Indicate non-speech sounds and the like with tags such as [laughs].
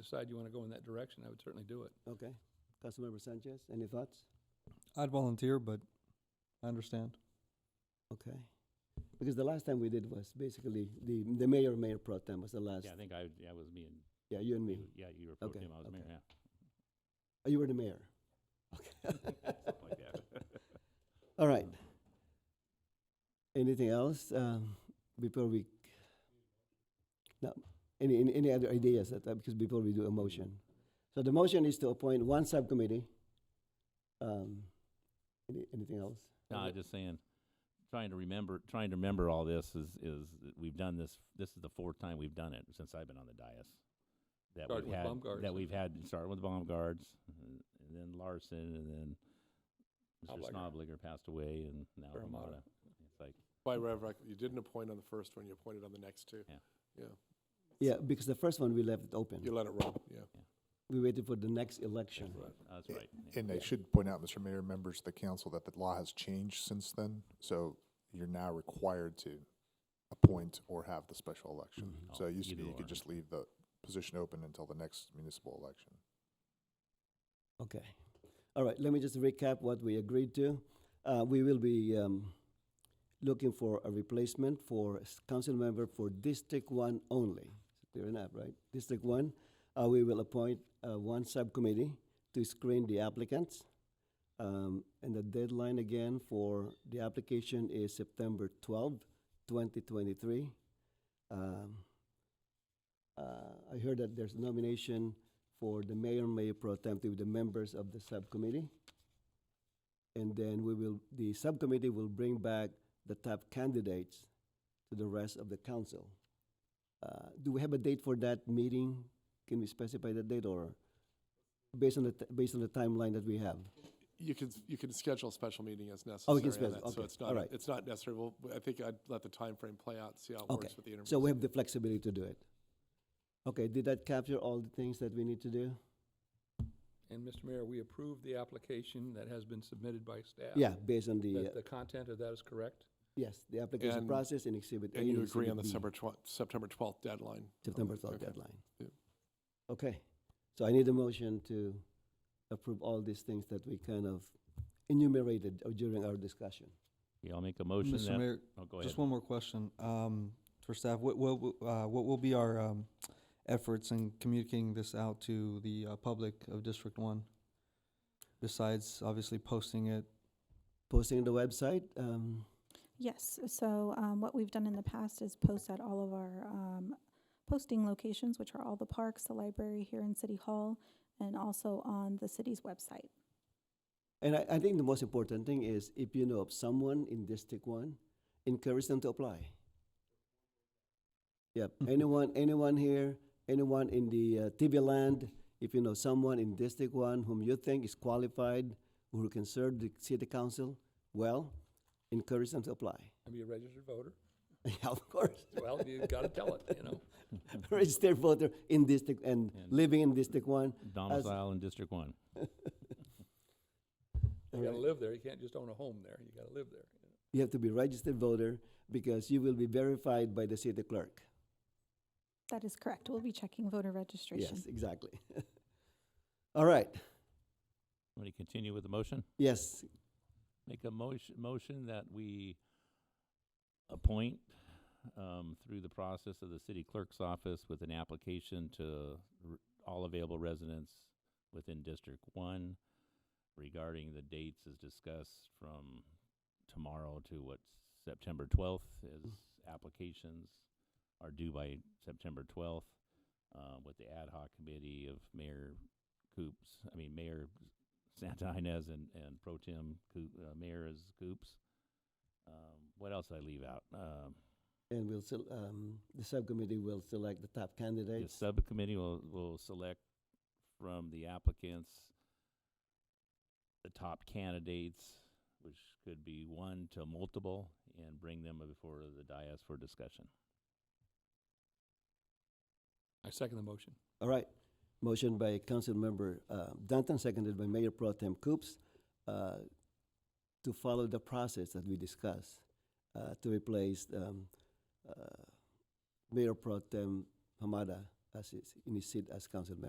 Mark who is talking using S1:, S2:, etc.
S1: decide you want to go in that direction, I would certainly do it.
S2: Okay. Councilmember Sanchez, any thoughts?
S3: I'd volunteer, but I understand.
S2: Okay. Because the last time we did was basically the, the mayor, mayor pro tem was the last.
S4: Yeah, Mm-hmm. I think I, yeah, it was me and,
S2: Yeah, you and me.
S4: you- yeah, you were pro
S2: Okay,
S4: tem, I was mayor,
S2: okay.
S4: yeah.
S2: Oh, You were the mayor. Okay.
S4: [laughs] Something like that.
S2: [laughs] All right. Anything else, um, before we? No, any, any, any other ideas that, uh, because before we do a motion? So the motion is to appoint one subcommittee. Um, any, anything else?
S4: No, I just saying, trying to remember, trying to remember all this is, is, that we've done this, this is the fourth time we've done it since I've been on the dais. That
S1: Started
S4: we've
S1: with
S4: had,
S1: Baumgart's,
S4: that
S1: I
S4: we've had, starting with bomb guards, uh, and then Larson, and then Mr.
S1: Obligor.
S4: Snobliger passed away, and now
S1: Paramatta.
S4: Ramada. It's like,
S5: By Reverend, you didn't appoint on the first one, you appointed on the next two.
S2: Yeah, because the first one we left it open.
S5: You let it roll, yeah.
S2: We waited for the next election.
S4: that's right. yeah.
S6: And I should point out, Mr. Mayor, members of the council, that the law has changed since then. So you're now required to appoint or have the special election.
S2: Mhm.
S6: So it used to
S4: Either
S6: be you
S4: or.
S6: could just leave the position open until the next municipal election.
S2: Okay. All right, let me just recap what we agreed to. Uh, we will be, um, looking for a replacement for a s- council member for District One only. Clear enough, right? District One, uh, we will appoint, uh, one subcommittee to screen the applicants. Um, and the deadline again for the application is September twelfth, twenty twenty-three. Um, uh, I heard that there's nomination for the mayor, mayor pro temp, with the members of the subcommittee. And then we will, the subcommittee will bring back the top candidates to the rest of the council. Uh, Do we have a date for that meeting? Can we specify the date or based on the, t- based on the timeline that we have?
S5: You can, you can schedule a special meeting as
S2: Oh,
S5: necessary
S2: we can
S5: on
S2: schedule,
S5: that, so
S2: okay,
S5: it's
S2: all
S5: not,
S2: right.
S5: it's not necessary. Well, I think I'd let the time frame play out, see how it
S2: Okay,
S5: works with the interviews.
S2: So we have the flexibility to do it. Okay, did that capture all the things that we need to do?
S1: And Mr. Mayor, we approve the application that has been submitted by staff.
S2: Yeah, based on the,
S1: That
S2: uh,
S1: the content of that is correct?
S2: yes, the application
S5: And-
S2: process and exhibit A.
S5: And you agree
S2: Exhibit
S5: on the
S2: B.
S5: September twelfth, September twelfth deadline?
S2: September twelfth
S5: Okay.
S2: deadline.
S5: Yeah.
S2: Okay, so I need a motion to approve all these things that we kind of enumerated uh, during our discussion.
S4: Yeah, I'll make a motion
S3: Mr.
S4: that,
S3: Mayor,
S4: oh, go ahead.
S3: just one more question, um, for staff. What, what, w- uh, what will be our, um, efforts in communicating this out to the, uh, public of District One? Besides obviously posting it,
S2: Posting on the website, um,
S7: Yes, so um, what we've done in the past is post at all of our um, posting locations, which are all the parks, the library here in City Hall, and also on the city's website.
S2: and I, I think the most important thing is if you know of someone in District One, encourage them to apply. Yep,
S1: Mm-hmm.
S2: anyone, anyone here, anyone in the uh, TV land, if you know someone in District One whom you think is qualified, who can serve the city council, well, encourage them to apply. [laughs]
S1: And be a registered voter?
S2: Yeah, of course. [laughs]
S1: Well, you gotta tell it, you know?
S2: Registered voter in district and
S4: And-
S2: living in district one.
S4: [laughs]
S2: [laughs]
S4: Domicile in District One.
S1: You gotta live there, you can't just own a home there, you gotta live there.
S2: You have to be registered voter because you will be verified by the city clerk.
S7: That is correct. We'll be checking voter registration.
S2: Yes, exactly. [laughs] All right.
S4: Want to continue with the motion?
S2: Yes.
S4: Make a motion, motion that we appoint, um, through the process of the city clerk's office with an application to r- all available residents within District One regarding the dates as discussed from tomorrow to what, September twelfth, as applications are due by September twelfth, uh, with the ad hoc committee of Mayor Coops, I mean, Mayor Santa Inez and, and Pro Tem Coop, uh, Mayor is Coops. Um, what else did I leave out? Um,
S2: And we'll, sel- um, the subcommittee will select the top
S4: the
S2: candidates.
S4: subcommittee will, will select from the applicants the top candidates, which could be one to multiple, and bring them before the dais for discussion.
S1: I second the motion.
S2: All right. Motion by Council Member uh, Danton, seconded by Mayor Pro Tem Coops, uh, to follow the process that we discussed uh, to replace um, uh, Mayor Pro Tem Hamada as his, in his seat as council member.